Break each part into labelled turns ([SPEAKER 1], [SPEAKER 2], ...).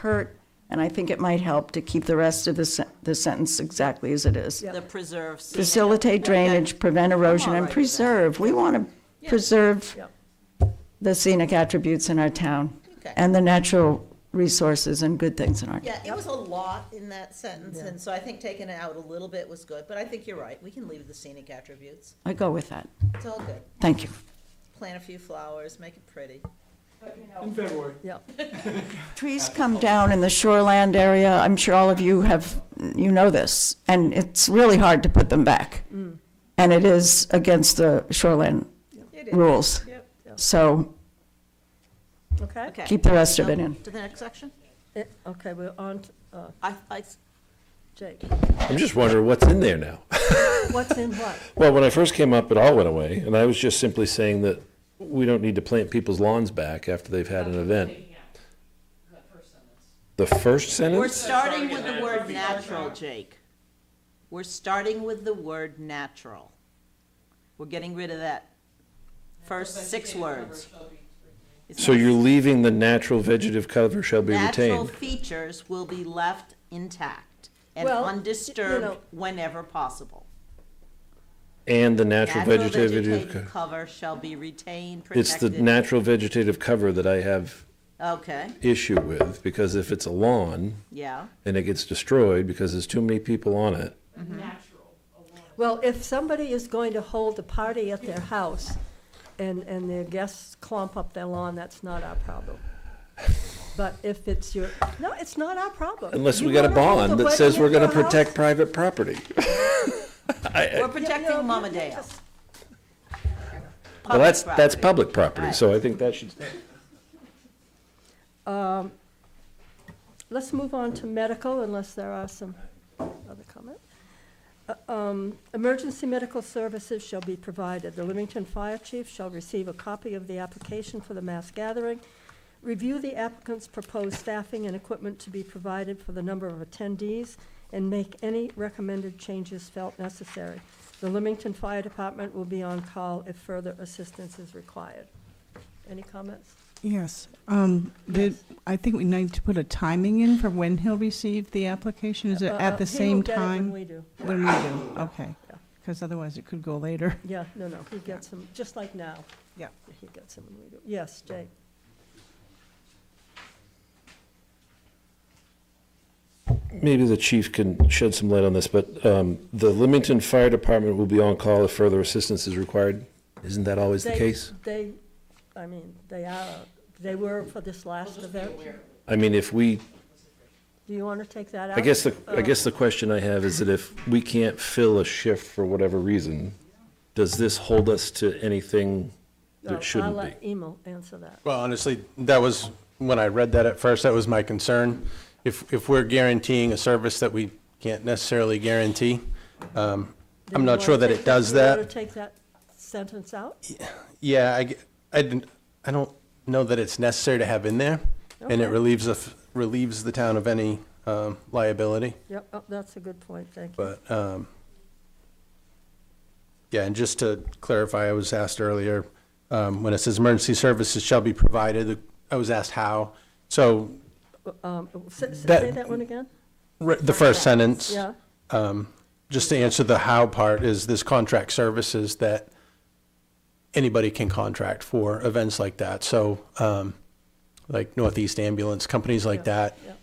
[SPEAKER 1] hurt, and I think it might help to keep the rest of the sen- the sentence exactly as it is.
[SPEAKER 2] The preserve scenic-
[SPEAKER 1] Facilitate drainage, prevent erosion,
[SPEAKER 2] all
[SPEAKER 1] and
[SPEAKER 2] right with that.
[SPEAKER 1] preserve. We want to preserve
[SPEAKER 3] Yep.
[SPEAKER 1] the scenic attributes in our town
[SPEAKER 4] Okay.
[SPEAKER 1] and the natural resources and good things in our town.
[SPEAKER 4] Yeah, it was a lot in that sentence, and so I think taking it out a little bit was good, but I think you're right, we can leave the scenic attributes.
[SPEAKER 1] I go with that.
[SPEAKER 4] It's all good.
[SPEAKER 1] Thank you.
[SPEAKER 4] Plant a few flowers, make it pretty.
[SPEAKER 5] In February.
[SPEAKER 1] Trees come down in the shoreland area. I'm sure all of you have, you know this, and it's really hard to put them back.
[SPEAKER 4] Mm.
[SPEAKER 1] And it is against the shoreland
[SPEAKER 4] It is.
[SPEAKER 1] rules.
[SPEAKER 4] Yep.
[SPEAKER 1] So
[SPEAKER 3] Okay,
[SPEAKER 4] Okay.
[SPEAKER 1] keep the rest of it
[SPEAKER 4] Now,
[SPEAKER 1] in.
[SPEAKER 4] To the next section?
[SPEAKER 3] Eh, okay, we're on, to, uh,
[SPEAKER 2] I, I,
[SPEAKER 3] Jake,
[SPEAKER 6] I'm just wondering what's in there now.
[SPEAKER 3] what's in what?
[SPEAKER 6] Well, when I first came up, it all went away, and I was just simply saying that we don't need to plant people's lawns back after they've had an event. The first
[SPEAKER 2] we're
[SPEAKER 6] sentence?
[SPEAKER 2] starting with the word natural, Jake. We're starting with the word natural. We're getting rid of that first six words. It's
[SPEAKER 6] So
[SPEAKER 2] not-
[SPEAKER 6] you're leaving the natural vegetative cover shall be
[SPEAKER 2] Natural
[SPEAKER 6] retained.
[SPEAKER 2] features will be left intact and
[SPEAKER 3] Well, y- you
[SPEAKER 2] undisturbed
[SPEAKER 3] know-
[SPEAKER 2] whenever possible.
[SPEAKER 6] And the natural
[SPEAKER 2] Natural
[SPEAKER 6] vegetative,
[SPEAKER 2] vegetative
[SPEAKER 6] co-
[SPEAKER 2] cover shall be retained,
[SPEAKER 6] it's the
[SPEAKER 2] protected.
[SPEAKER 6] natural vegetative cover that I have
[SPEAKER 2] Okay,
[SPEAKER 6] issue with, because if it's a lawn
[SPEAKER 2] yeah.
[SPEAKER 6] and it gets destroyed because there's too many people on it,
[SPEAKER 3] Well, if somebody is going to hold a party at their house and, and their guests clump up their lawn, that's not our problem. But if it's your, no, it's not our problem.
[SPEAKER 6] unless
[SPEAKER 3] You
[SPEAKER 6] we got a
[SPEAKER 3] wanna hold
[SPEAKER 6] bond that
[SPEAKER 3] wedding
[SPEAKER 6] says
[SPEAKER 3] at
[SPEAKER 6] we're gonna
[SPEAKER 3] your house?
[SPEAKER 6] protect private property. Uh,
[SPEAKER 2] We're
[SPEAKER 3] You know,
[SPEAKER 2] protecting Mama
[SPEAKER 3] you- you
[SPEAKER 2] Dale.
[SPEAKER 3] just-
[SPEAKER 6] Well, that's, that's
[SPEAKER 2] property.
[SPEAKER 6] public property,
[SPEAKER 2] Right.
[SPEAKER 6] so I think that should stay.
[SPEAKER 3] Let's move on to medical unless there are some other comment. Uh, um, Emergency medical services shall be provided. The Leamington Fire Chief shall receive a copy of the application for the mass gathering, review the applicant's proposed staffing and equipment to be provided for the number of attendees, and make any recommended changes felt necessary. The Leamington Fire Department will be on call if further assistance is required. Any comments?
[SPEAKER 7] Yes, um, did, I think we need to put a timing in for when he'll receive the application, is it
[SPEAKER 3] Uh,
[SPEAKER 7] at the
[SPEAKER 3] he will
[SPEAKER 7] same
[SPEAKER 3] get it when
[SPEAKER 7] time?
[SPEAKER 3] we do.
[SPEAKER 7] When we do, okay, because otherwise it could go later.
[SPEAKER 3] Yeah, no, no, he gets them, just like now.
[SPEAKER 7] Yeah.
[SPEAKER 3] He gets them when we do. Yes, Jake.
[SPEAKER 6] Maybe the chief can shed some light on this, but um, the Leamington Fire Department will be on call if further assistance is required. Isn't that always the
[SPEAKER 3] They-
[SPEAKER 6] case?
[SPEAKER 3] They, I mean, they are, they were for this last event.
[SPEAKER 6] I mean, if we,
[SPEAKER 3] Do you want to take that out?
[SPEAKER 6] I guess, the I
[SPEAKER 3] Uh,
[SPEAKER 6] guess the question I have is that if we can't fill a shift for whatever reason, does this hold us to anything
[SPEAKER 3] no,
[SPEAKER 6] that shouldn't
[SPEAKER 3] I'll
[SPEAKER 6] be?
[SPEAKER 3] let Emil answer that.
[SPEAKER 5] Well, honestly, that was, when I read that at first, that was my concern. If, if we're guaranteeing a service that we can't necessarily guarantee, um, I'm not sure that it does
[SPEAKER 3] You want
[SPEAKER 5] that.
[SPEAKER 3] to take that sentence out?
[SPEAKER 5] Yeah, I, g- I didn't, I don't know that it's necessary to have in there, and it
[SPEAKER 3] Okay.
[SPEAKER 5] relieves, the f- relieves the town of any um, liability,
[SPEAKER 3] Yep, oh, that's a good point, thank you.
[SPEAKER 5] but, um, yeah, and just to clarify, I was asked earlier, um, when it says emergency services shall be provided, I was asked how. So
[SPEAKER 3] Um, s- s-
[SPEAKER 5] That-
[SPEAKER 3] Say that one again?
[SPEAKER 5] Re- The first sentence,
[SPEAKER 3] Yeah,
[SPEAKER 5] just to answer the how part, is this contract services that anybody can contract for events like that. So, um, like Northeast Ambulance, companies like that
[SPEAKER 3] yep,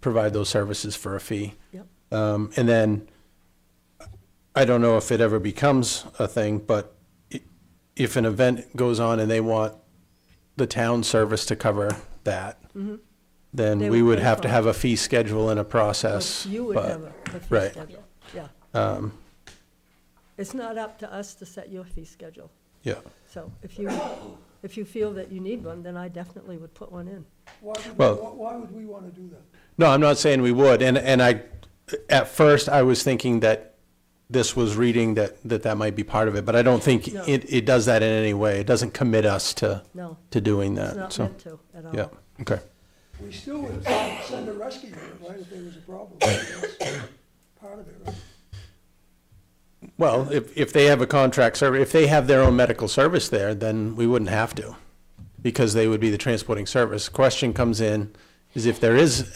[SPEAKER 5] provide those services for a fee.
[SPEAKER 3] yep.
[SPEAKER 5] Um, and then, I don't know if it ever becomes a thing, but i- if an event goes on and they want the town service to cover that,
[SPEAKER 3] Mm-hmm. They
[SPEAKER 5] then
[SPEAKER 3] would
[SPEAKER 5] we would
[SPEAKER 3] pay
[SPEAKER 5] have
[SPEAKER 3] for
[SPEAKER 5] to
[SPEAKER 3] it.
[SPEAKER 5] have a fee schedule and a process.
[SPEAKER 3] You would
[SPEAKER 5] but-
[SPEAKER 3] have a a fee
[SPEAKER 5] right. Um,
[SPEAKER 3] schedule, yeah. It's not up to us to set your fee schedule.
[SPEAKER 5] Yeah.
[SPEAKER 3] So if you, if you feel that you need one, then I definitely would put one in.
[SPEAKER 8] Why would,
[SPEAKER 5] Well-
[SPEAKER 8] we- why would we want to do that?
[SPEAKER 5] No, I'm not saying we would, and, and I, at first, I was thinking that this was reading that, that that might be part of it, but I don't think
[SPEAKER 3] No.
[SPEAKER 5] it, it does that in any way. It doesn't commit us to,
[SPEAKER 3] No,
[SPEAKER 5] to doing
[SPEAKER 3] it's
[SPEAKER 5] that,
[SPEAKER 3] not
[SPEAKER 5] so,
[SPEAKER 3] meant to at all.
[SPEAKER 5] yeah, okay.
[SPEAKER 8] We still would send send a rescue unit, right, if there was a problem. That's Part of it, right?
[SPEAKER 5] Well, if, if they have a contract service, if they have their own medical service there, then we wouldn't have to, because they would be the transporting service. Question comes in, is if there is